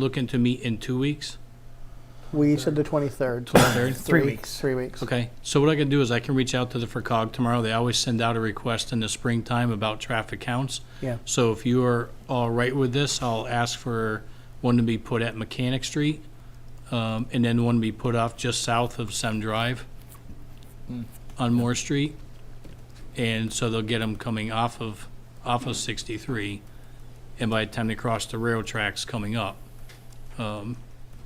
Looking to meet in two weeks, We said the 23rd. 23rd? Three weeks. Three weeks. Okay, so what I can do is I can reach out to the E FERCog tomorrow. They always send out a request in the springtime about traffic counts. Yeah. So if you are all right with this, I'll ask for one to be put at Mechanic Street, um, and then one to be put off just south of Sem Drive Hmm. on Moore Street. And so they'll get them coming off of, off of 63, and by the time they cross the rail tracks coming up. Um,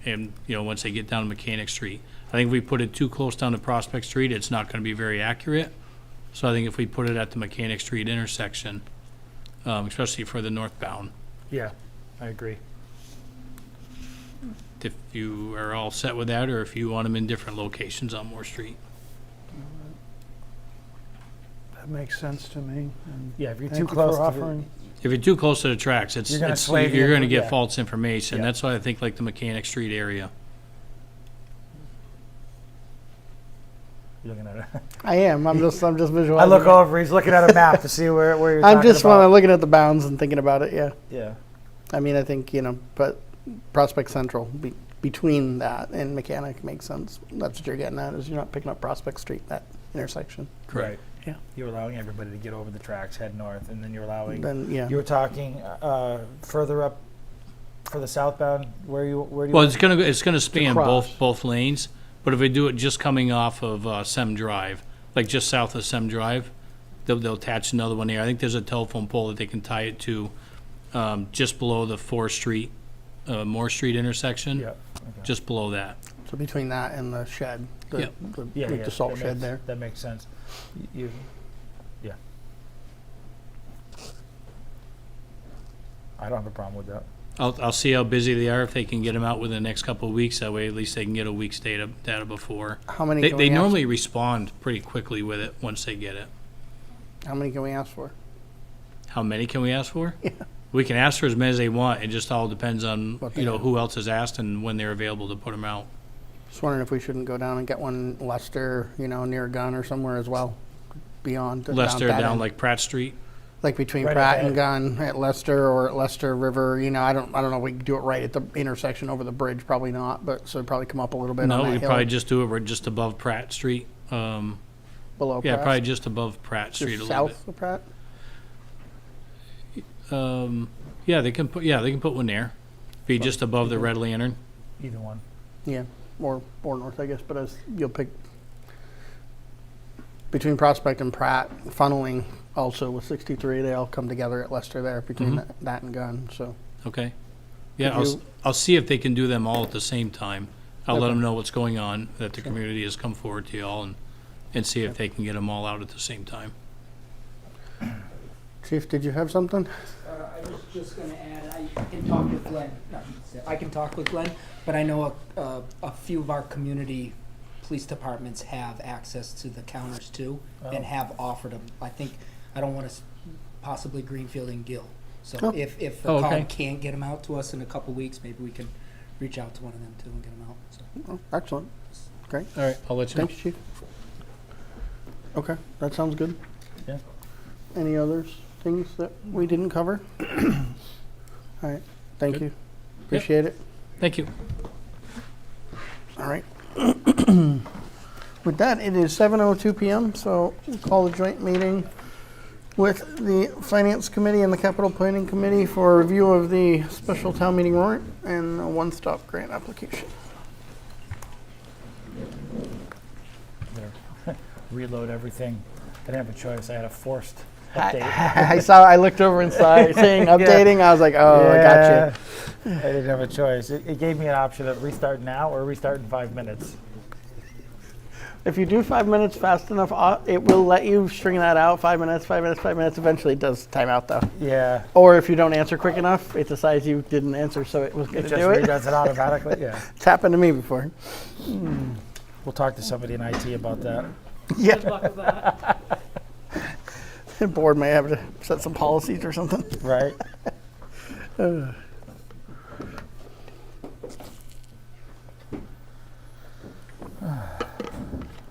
And, you know, once they get down to Mechanic Street. I think if we put it too close down to Prospect Street, it's not going to be very accurate. So I think if we put it at the Mechanic Street intersection, um, especially for the northbound. Yeah, I agree. If you are all set with that, or if you want them in different locations on Moore Street. That makes sense to me. and Yeah, if you're too Thank you close for to the, offering. If you're too close to the tracks, it's, You're gonna it's- sway the you're going to other- get yeah. false information. Yeah. That's why I think like the Mechanic Street area. you're looking at it. I am. I'm just, I'm just I visualizing. look over, he's looking at a map to see where, where you're I'm talking just when I'm about. looking at the bounds and thinking about it. Yeah. Yeah, I mean, I think, you know, but Prospect Central be, between that and Mechanic makes sense. That's what you're getting at is you're not picking up Prospect Street, that intersection. right. Yeah. You're allowing everybody to get over the tracks, head north, and then you're allowing, Then, yeah. you were talking, uh, further up for the southbound, where you, where do you? Well, it's going to, it's going to span cross. both, both lanes, but if we do it just coming off of uh, Sem Drive, like just south of Sem Drive, they'll, they'll attach another one there. I think there's a telephone pole that they can tie it to um, just below the Fourth Street, uh, Moore Street intersection, Yeah. okay. just below that. So between that and the shed, the, Yep. the, Yeah, like yeah, the salt that shed makes- there. That makes sense. Y- You, yeah. I don't have a problem with that. I'll, I'll see how busy they are, if they can get them out within the next couple of weeks, that way at least they can get a week's data, data before. How many They, can they we ask- normally respond pretty quickly with it, once they get it. How many can we ask for? How many can we ask for? Yeah. We can ask for as many as they want, it just all depends on, What they you know, have. who else is asked and when they're available to put them out. Just wondering if we shouldn't go down and get one Lester, you know, near Gun or somewhere as well, beyond. the- Lester that down end. like Pratt Street, Like between Right at Pratt the and Gun at Lester or at Lester River, you know, I don't, I don't know, we could do it right at the intersection over the bridge, probably not, but, so probably come up a little bit on that no, hill. we probably just do it, we're just above Pratt Street, um, Below yeah, Pratt. probably just above Pratt Just Street a little bit. South of Pratt? Um, yeah, they can put, yeah, they can put one there, be just above the Red Lantern. Either one. Yeah, or, or north, I guess, but as, you'll pick between Prospect and Pratt, funneling also with sixty-three, they all come together at Lester there between Mhm. that, that and Gun, so. Okay. Yeah, Could I'll, s- you- I'll see if they can do them all at the same time. I'll let Okay. them know what's going on, that the Sure. community has come forward to y'all and, and see if they can get them all out at the same time. Chief, did you have something? Uh, I was just gonna add, I can talk with Glenn, not Seth, I can talk with Glenn, but I know a, a, a few of our community police departments have access to the counters too, and Oh. have offered them. I think, I don't wanna, s- possibly Greenfield and Gill. Oh. So if, if Oh, the okay. cog can't get them out to us in a couple weeks, maybe we can reach out to one of them too and get them out, so. Oh, Excellent. All right, I'll let Thanks, Chief. Okay, that sounds good. Yeah. Any others, things that we didn't cover? All right, thank Good. you. Appreciate it. Thank you. All right. With that, it is 7:02 PM, so we'll call the joint meeting with the Finance Committee and the Capital Planning Committee for review of the special town meeting warrant and a one-stop grant application. There. Reload everything. I didn't have a choice. I had a forced update. I saw, I looked over and saw, saying updating, I was like, oh, I got you. Yeah, I didn't have a choice. It, it gave me an option of restart now or restart in five minutes. If you do five minutes fast enough, uh, it will let you string that out. Five minutes, five minutes, five minutes. Eventually, it does time out though. Yeah. Or if you don't answer quick enough, it decides you didn't answer, so it was It going just to do it. redoes it automatically. Yeah. It's happened to me before. We'll talk to somebody in IT about that. Yeah. The board may have to set some policies or something. Right?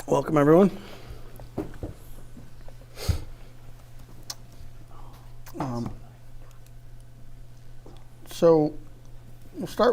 Welcome everyone. Um,